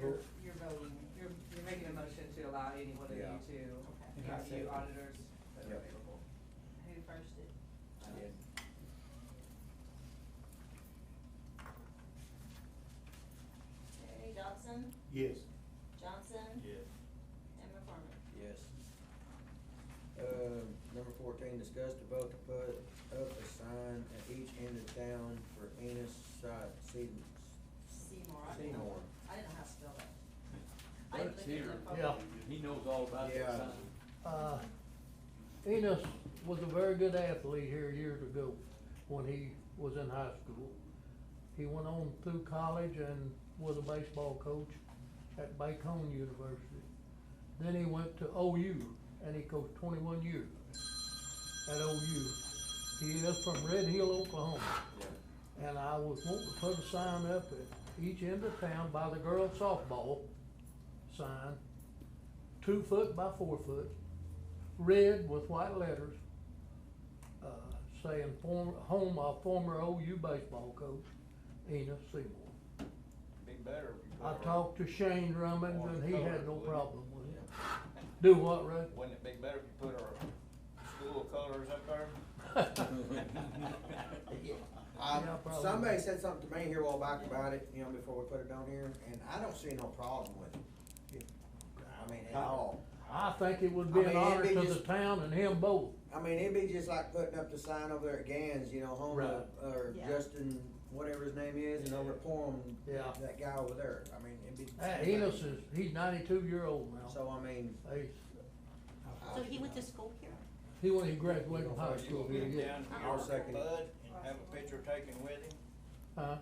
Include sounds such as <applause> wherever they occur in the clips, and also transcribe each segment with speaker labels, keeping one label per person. Speaker 1: You're you're voting, you're, you're making a motion to allow any one of you
Speaker 2: Yeah.
Speaker 1: to
Speaker 3: And I
Speaker 1: review
Speaker 3: second.
Speaker 1: auditors that are
Speaker 2: Yeah.
Speaker 1: available.
Speaker 4: Who first did? Okay, Dodson,
Speaker 3: Yes.
Speaker 4: Johnson,
Speaker 3: Yes.
Speaker 4: and McCormick.
Speaker 2: Yes. Um, number fourteen, discuss the vote to put up a sign at each end of town for Enos Side Season.
Speaker 4: Seymour. I didn't know-
Speaker 2: Seymour.
Speaker 4: I didn't know how to spell that. I didn't look at the phone.
Speaker 5: Yeah.
Speaker 6: He knows all about
Speaker 2: Yeah.
Speaker 6: that sign.
Speaker 5: Uh, Enos was a very good athlete here years ago when he was in high school. He went on through college and was a baseball coach at Bacon University. Then he went to OU and he coached twenty-one years at OU. He is from Red Hill, Oklahoma. And I was wanting to put a sign up at each end of town by the girls softball sign, two foot by four foot, red with white letters, uh, saying form, home of former OU baseball coach, Enos Seymour.
Speaker 6: Be better if you.
Speaker 5: I
Speaker 6: put a-
Speaker 5: talked to Shane Drummond
Speaker 6: Or
Speaker 5: and he had
Speaker 6: colored,
Speaker 5: no
Speaker 6: wouldn't it?
Speaker 5: problem with it. Do what,
Speaker 6: <laughs>
Speaker 5: Ray?
Speaker 6: Wouldn't it be better if you put our school colors up
Speaker 5: <laughs>
Speaker 6: there?
Speaker 2: Um,
Speaker 5: Yeah, probably.
Speaker 2: somebody said something to me here a while back about it, you know, before we put it on here, and I don't see no problem with it. I mean, at all.
Speaker 5: I think it would
Speaker 2: I
Speaker 5: be an
Speaker 2: mean, it'd
Speaker 5: honor
Speaker 2: be
Speaker 5: to the
Speaker 2: just-
Speaker 5: town and him both.
Speaker 2: I mean, it'd be just like putting up the sign over there at Gans, you know, home of, or
Speaker 4: Yeah.
Speaker 2: Justin, whatever his name is, and over at Porham,
Speaker 5: Yeah.
Speaker 2: that guy over there. I mean, it'd be.
Speaker 5: Uh, Enos is, he's ninety-two year old now.
Speaker 2: So, I mean.
Speaker 5: He's,
Speaker 2: I-
Speaker 4: So he went to school here?
Speaker 5: he, when he graduated from high
Speaker 6: Or you
Speaker 5: school,
Speaker 6: gonna
Speaker 5: he,
Speaker 6: get him
Speaker 5: yeah.
Speaker 6: down to
Speaker 2: I'll second it.
Speaker 6: your bud and have a picture taken with him?
Speaker 5: Huh?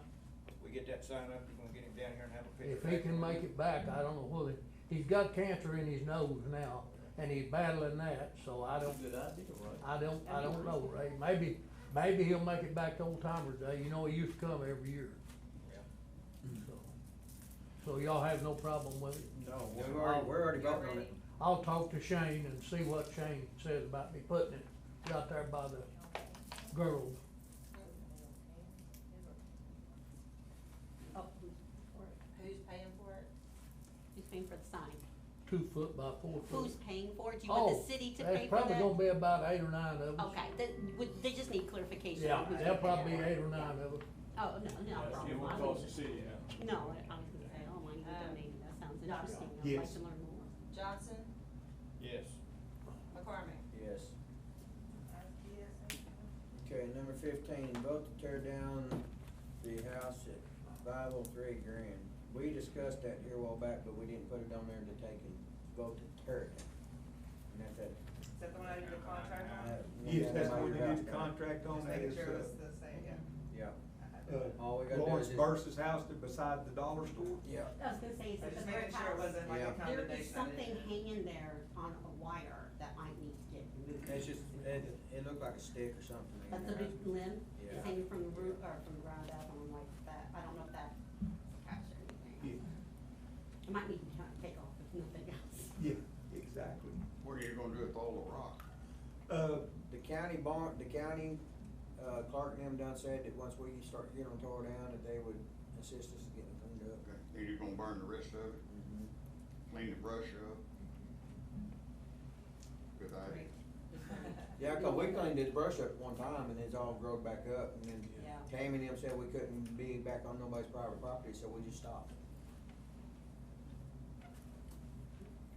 Speaker 6: We get that sign up, you gonna get him down here and have a picture.
Speaker 5: If he
Speaker 6: taken
Speaker 5: can
Speaker 6: with
Speaker 5: make
Speaker 6: him?
Speaker 5: it back, I don't know whether, he's got cancer in his nose now, and he's battling that, so I don't,
Speaker 3: Good idea, right?
Speaker 5: I don't, I don't know, Ray. Maybe, maybe he'll make it back to Old Timer Day, you know, he used to come every year,
Speaker 6: Yeah.
Speaker 5: so. So y'all have no problem with it?
Speaker 2: No, we've already, we're already voting on it.
Speaker 5: I'll talk to Shane and see what Shane says about me putting it out there by the girls.
Speaker 4: Oh, who's for it? Who's paying for it?
Speaker 7: Who's paying for the sign?
Speaker 5: two foot by four foot.
Speaker 7: Who's paying for it? Do you want the city to pay for
Speaker 5: Oh, that's probably
Speaker 7: that?
Speaker 5: gonna be about eight or nine of us.
Speaker 7: Okay, that, would, they just need clarification.
Speaker 5: Yeah,
Speaker 7: on who's
Speaker 5: there'll
Speaker 7: paying for
Speaker 5: probably be
Speaker 7: that.
Speaker 5: eight or nine of us.
Speaker 7: Oh, no, no problem.
Speaker 3: It would
Speaker 7: I
Speaker 3: cost
Speaker 7: was-
Speaker 3: the city now.
Speaker 7: No, I I was gonna say, oh, my, you
Speaker 4: Um,
Speaker 1: Uh,
Speaker 7: donated, that sounds interesting, I'd like
Speaker 3: Yes.
Speaker 7: to learn more.
Speaker 4: Johnson,
Speaker 6: Yes.
Speaker 4: McCormick.
Speaker 2: Yes. Okay, number fifteen, vote to tear down the house at five oh three Grand. We discussed that here a while back, but we didn't put it on there to take and vote to tear it down. And that's it.
Speaker 1: Is that the one I did the contract on?
Speaker 2: Uh,
Speaker 3: Yes, that's
Speaker 2: yeah,
Speaker 3: what we
Speaker 2: you're
Speaker 3: did
Speaker 2: right.
Speaker 3: the contract on,
Speaker 1: Just
Speaker 3: that
Speaker 1: making
Speaker 3: is,
Speaker 1: sure it's
Speaker 3: uh,
Speaker 1: the same, yeah.
Speaker 2: Yeah,
Speaker 1: I had
Speaker 3: uh,
Speaker 1: that.
Speaker 2: All we gotta do
Speaker 3: Lawrence
Speaker 2: is-
Speaker 3: Burse's house that beside the dollar store.
Speaker 2: yeah.
Speaker 7: I was gonna say, is
Speaker 1: I
Speaker 7: it
Speaker 1: just
Speaker 7: the
Speaker 1: making sure it
Speaker 7: warehouse?
Speaker 1: wasn't like a
Speaker 2: Yeah.
Speaker 7: There
Speaker 1: combination.
Speaker 7: is
Speaker 1: I didn't-
Speaker 7: something hanging there on a wire that might need to get removed.
Speaker 2: It's just, it, it looked like a stick or something. in
Speaker 7: That's a
Speaker 2: there.
Speaker 7: big limb,
Speaker 2: Yeah.
Speaker 7: it's hanging from the roof, or from the ground up, and I'm like, that, I don't know if that's attached or
Speaker 3: Yeah,
Speaker 7: anything. It might need to kind of take off if nothing else.
Speaker 3: yeah, exactly.
Speaker 8: What are you gonna do with all the rock?
Speaker 3: Uh,
Speaker 2: The county barn, the county, uh, Clark and them done said that once we start getting them tore down, that they would assist us in getting them cleaned up.
Speaker 8: Okay, Then you're gonna burn the rest of it,
Speaker 2: Mhm.
Speaker 8: clean the brush up. Good idea.
Speaker 2: Yeah, 'cause we cleaned this brush up one time and it's all growed back up and then
Speaker 7: Yeah.
Speaker 2: Tammy and them said we couldn't be back on nobody's private property, so we just stopped.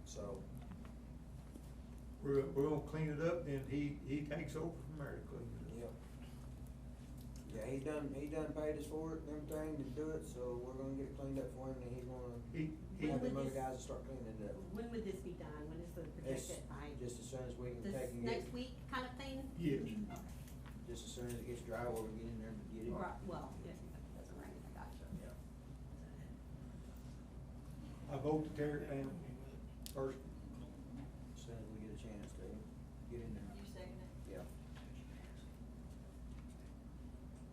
Speaker 2: So,
Speaker 3: we're, we're gonna clean it up, then he, he takes over from there to clean it
Speaker 2: yep.
Speaker 3: up.
Speaker 2: Yeah, he done, he done paid us for it and everything to do it, so we're gonna get it cleaned up for him and he's gonna
Speaker 3: He, he,
Speaker 2: have
Speaker 7: Well,
Speaker 2: them other
Speaker 7: this-
Speaker 2: guys to start cleaning it up.
Speaker 7: When would this be done? When is the
Speaker 2: It's
Speaker 7: projected by?
Speaker 2: just as soon as we can
Speaker 7: This
Speaker 2: take and get,
Speaker 7: next week kind of thing?
Speaker 3: yes.
Speaker 2: just as soon as it gets dry, we'll get in there and get it.
Speaker 7: Right, well, yes, it doesn't rain, I got you.
Speaker 2: Yeah.
Speaker 3: I vote to tear it down first.
Speaker 2: As soon as we get a chance to get in there.
Speaker 4: You second it?
Speaker 2: Yeah.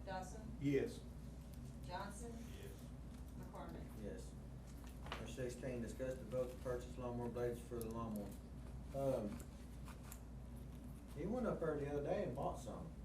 Speaker 4: Dodson,
Speaker 3: Yes.
Speaker 4: Johnson. McCormick.
Speaker 2: Yes. Number sixteen, discuss the vote to purchase lawnmower blades for the lawnmower. Um, he went up there the other day and bought some.